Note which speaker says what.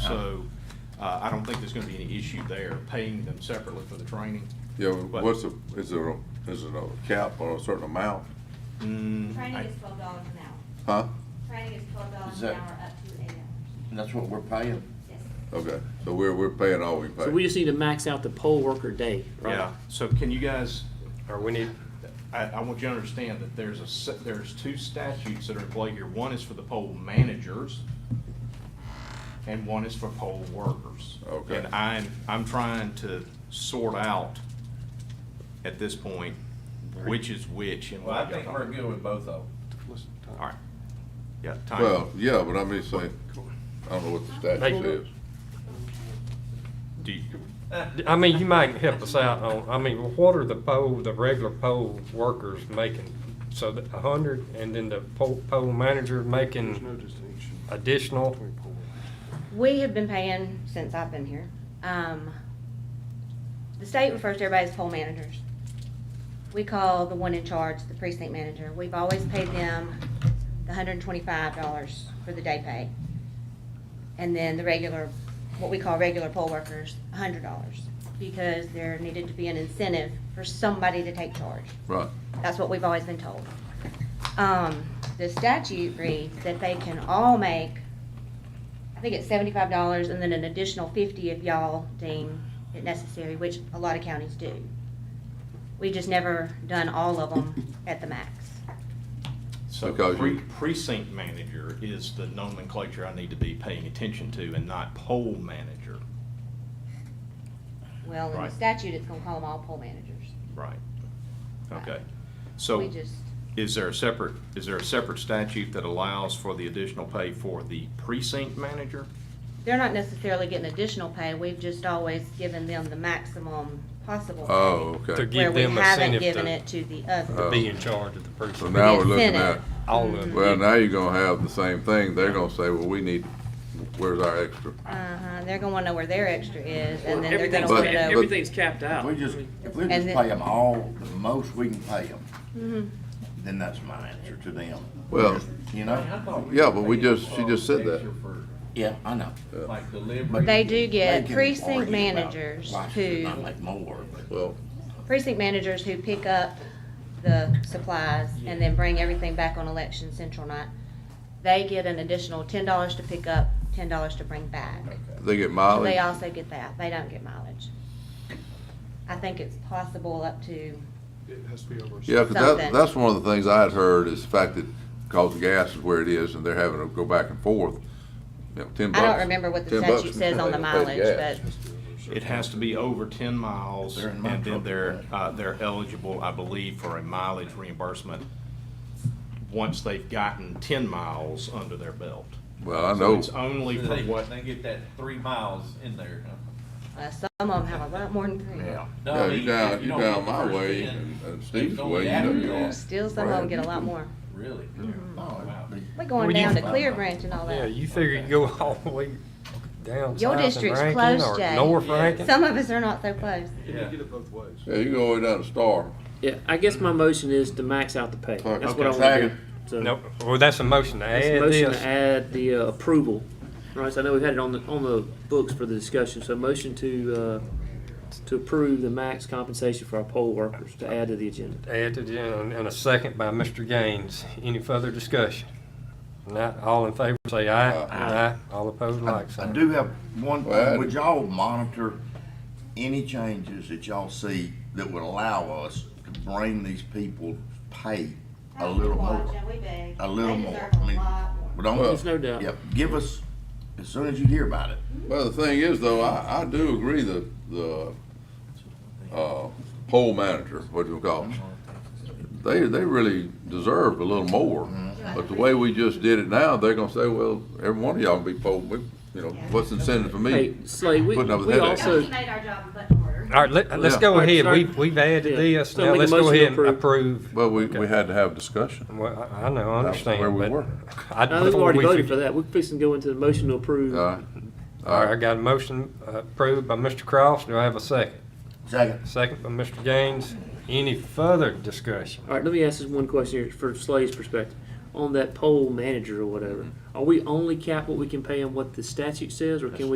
Speaker 1: So, uh, I don't think there's gonna be any issue there, paying them separately for the training.
Speaker 2: Yeah,
Speaker 1: But-
Speaker 2: what's the, is there, a- is it a cap or a certain amount?
Speaker 1: Mm, I-
Speaker 3: Training is twelve dollars an hour.
Speaker 2: Huh?
Speaker 3: Training is twelve dollars
Speaker 4: Is
Speaker 3: an
Speaker 4: that-
Speaker 3: hour up to eight hours.
Speaker 4: And that's what we're paying.
Speaker 3: Yes.
Speaker 2: Okay, so we're, we're paying all we pay.
Speaker 5: So we just need to max out the poll worker day, right?
Speaker 1: Yeah, so can you guys,
Speaker 6: Or we need,
Speaker 1: I, I want you to understand that there's a, se- there's two statutes that are in play here. One is for the poll managers, and one is for poll workers.
Speaker 2: Okay.
Speaker 1: And I'm, I'm trying to sort out at this point which is which and
Speaker 7: Well,
Speaker 1: what I
Speaker 7: I think
Speaker 1: got.
Speaker 7: we're good with both of them.
Speaker 1: All right. Yeah, time.
Speaker 2: Well, yeah, but I'm just saying, I don't know what the
Speaker 6: Hey.
Speaker 2: statute says.
Speaker 1: Do you,
Speaker 6: I mean, you might help us out on, I mean, what are the poll, the regular poll workers making? So the a hundred, and then the poll, poll manager making additional?
Speaker 3: We have been paying since I've been here. Um, the state refers to everybody as poll managers. We call the one in charge, the precinct manager. We've always paid them the hundred and twenty-five dollars for the day pay. And then the regular, what we call regular poll workers, hundred dollars, because there needed to be an incentive for somebody to take charge.
Speaker 2: Right,
Speaker 3: That's what we've always been told. Um, the statute reads that they can all make, I think it's seventy-five dollars and then an additional fifty if y'all deem it necessary, which a lot of counties do. We've just never done all of them at the max.
Speaker 1: so
Speaker 2: Because
Speaker 1: pre-
Speaker 2: you-
Speaker 1: precinct manager is the nomenclature I need to be paying attention to and not poll manager.
Speaker 3: Well, in the
Speaker 1: Right.
Speaker 3: statute, it's gonna call them all poll managers.
Speaker 1: Right. Okay.
Speaker 3: Right.
Speaker 1: So.
Speaker 3: We just,
Speaker 1: Is there a separate, is there a separate statute that allows for the additional pay for the precinct manager?
Speaker 3: they're not necessarily getting additional pay, we've just always given them the maximum possible. pay,
Speaker 1: Uh,
Speaker 2: oh,
Speaker 6: To
Speaker 2: okay.
Speaker 6: give
Speaker 3: Where
Speaker 6: them
Speaker 3: we haven't
Speaker 6: incentive to-
Speaker 3: given it to the
Speaker 6: To
Speaker 3: other.
Speaker 6: be in charge of the
Speaker 2: So
Speaker 6: precinct,
Speaker 2: now we're looking at,
Speaker 3: Incentive.
Speaker 6: all of
Speaker 2: well,
Speaker 6: it.
Speaker 2: now you're gonna have the same thing, they're gonna say, well, we need, where's our extra?
Speaker 3: Uh-huh, they're gonna wanna know where their extra is, and then they're gonna
Speaker 5: Everything's,
Speaker 2: But-
Speaker 3: wanna
Speaker 5: capped-
Speaker 3: know.
Speaker 5: everything's capped
Speaker 4: If
Speaker 5: out.
Speaker 4: we just, if we just
Speaker 3: And
Speaker 4: pay
Speaker 3: then-
Speaker 4: them all, the most we can pay them,
Speaker 3: Mhm.
Speaker 4: then that's my answer to them.
Speaker 2: Well,
Speaker 4: You
Speaker 7: I
Speaker 4: know?
Speaker 7: thought we
Speaker 2: yeah,
Speaker 7: were
Speaker 2: but we
Speaker 7: paying
Speaker 2: just, she
Speaker 7: for
Speaker 2: just said that.
Speaker 7: extra for,
Speaker 4: Yeah, I know.
Speaker 7: Like delivery.
Speaker 3: They do
Speaker 4: They
Speaker 3: get
Speaker 4: can
Speaker 3: precinct
Speaker 4: argue about
Speaker 3: managers
Speaker 4: why should
Speaker 3: who,
Speaker 4: Not make more, but
Speaker 2: Well,
Speaker 3: precinct managers who pick up the supplies and then bring everything back on election central night. They get an additional ten dollars to pick up, ten dollars to bring back.
Speaker 2: they get
Speaker 3: So They
Speaker 2: mileage,
Speaker 3: also get that, they don't get mileage. I think it's possible up to,
Speaker 8: It has to be over. a
Speaker 2: yeah, 'cause
Speaker 3: something.
Speaker 2: that, that's one of the things I had heard is the fact that, cause the gas is where it is and they're having to go back and forth, you know, ten
Speaker 3: I
Speaker 2: bucks.
Speaker 3: don't remember what
Speaker 2: 10
Speaker 3: the
Speaker 2: bucks
Speaker 3: statute says on the
Speaker 2: they gotta pay
Speaker 3: mileage,
Speaker 2: gas.
Speaker 3: but
Speaker 1: It has to be over ten miles,
Speaker 4: They're in my
Speaker 1: and then
Speaker 4: trouble.
Speaker 1: they're, uh, they're eligible, I believe, for a mileage reimbursement once they've gotten ten miles under their belt.
Speaker 2: Well, I
Speaker 1: So
Speaker 2: know,
Speaker 1: it's only for
Speaker 7: They,
Speaker 1: what,
Speaker 7: they get that three miles in there.
Speaker 3: uh, some of them have a lot more than three.
Speaker 4: yeah.
Speaker 7: No, I
Speaker 2: yeah,
Speaker 7: mean,
Speaker 2: you
Speaker 7: if
Speaker 2: down, you
Speaker 7: don't
Speaker 2: down
Speaker 7: get the
Speaker 2: my
Speaker 7: first
Speaker 2: way
Speaker 7: in,
Speaker 2: and and
Speaker 7: it's
Speaker 2: Steve's
Speaker 7: only
Speaker 2: way, you know
Speaker 7: after
Speaker 2: you are.
Speaker 7: that.
Speaker 3: Still, some of them get a lot more.
Speaker 7: Really?
Speaker 4: No,
Speaker 7: Wow.
Speaker 4: it'd be-
Speaker 3: We're going
Speaker 6: Well, you-
Speaker 3: down to Clear Branch and all that.
Speaker 6: Yeah, you figure you go all the way down
Speaker 3: Your
Speaker 6: south in
Speaker 3: district's
Speaker 6: Rankin
Speaker 3: closed,
Speaker 6: or
Speaker 3: Jay.
Speaker 6: north Rankin?
Speaker 3: Some of us are not so close.
Speaker 8: You
Speaker 7: Yeah.
Speaker 8: can get it both ways.
Speaker 2: Yeah, you can go all the way down to Star.
Speaker 5: Yeah, I guess my motion is to max out the pay.
Speaker 2: Okay.
Speaker 5: That's what I
Speaker 4: Second.
Speaker 5: want to do.
Speaker 6: No, well, that's a motion to add
Speaker 5: It's a motion to
Speaker 6: this.
Speaker 5: add the uh, approval, right, so I know we've had it on the, on the books for the discussion, so motion to, uh, to approve the max compensation for our poll workers to add to the agenda.
Speaker 6: Add to the, and and a second by Mr. Gaines. Any further discussion? Not, all in favor, say aye.
Speaker 2: Uh,
Speaker 6: Aye. All opposed, like
Speaker 4: I
Speaker 6: sign.
Speaker 4: do have one,
Speaker 2: Well,
Speaker 4: thing. would y'all monitor any changes that y'all see that would allow us to bring these people pay a little more? A little more, I mean, but
Speaker 5: There's
Speaker 4: don't,
Speaker 5: no doubt.
Speaker 4: yep, give us, as soon as you hear about it,
Speaker 2: Well, the thing is though, I, I do agree that the, uh, poll manager, what you call them, they, they really deserve a little more. But the way we just did it now, they're gonna say, well, every one of y'all be poll, we, you know, what's incentive for
Speaker 5: Hey,
Speaker 2: me?
Speaker 5: Slay, we,
Speaker 2: Putting up with
Speaker 5: we
Speaker 2: headaches.
Speaker 5: also,
Speaker 3: made our job much harder.
Speaker 6: All right, let, let's go
Speaker 5: Yeah.
Speaker 6: ahead.
Speaker 5: All right,
Speaker 6: We've, we've added
Speaker 5: Yeah.
Speaker 6: this.
Speaker 5: So
Speaker 6: Now
Speaker 5: make a
Speaker 6: let's go
Speaker 5: motion to
Speaker 6: ahead and approve.
Speaker 2: Well, we, we had to have discussion.
Speaker 6: Well, I- I know, I
Speaker 2: That's where
Speaker 6: understand,
Speaker 2: we
Speaker 6: but.
Speaker 2: were.
Speaker 6: I-
Speaker 5: I think we
Speaker 6: before
Speaker 5: already
Speaker 6: we
Speaker 5: voted
Speaker 6: forget-
Speaker 5: for that, we're fixing to go into the motion to approve.
Speaker 2: All right.
Speaker 6: All right, I got a motion uh, approved by Mr. Cross. Do I have a second?
Speaker 4: second,
Speaker 6: Second by Mr. Gaines. Any further discussion?
Speaker 5: All right, let me ask this one question here for Slay's perspective. On that poll manager or whatever, are we only cap what we can pay on what the statute says, or can we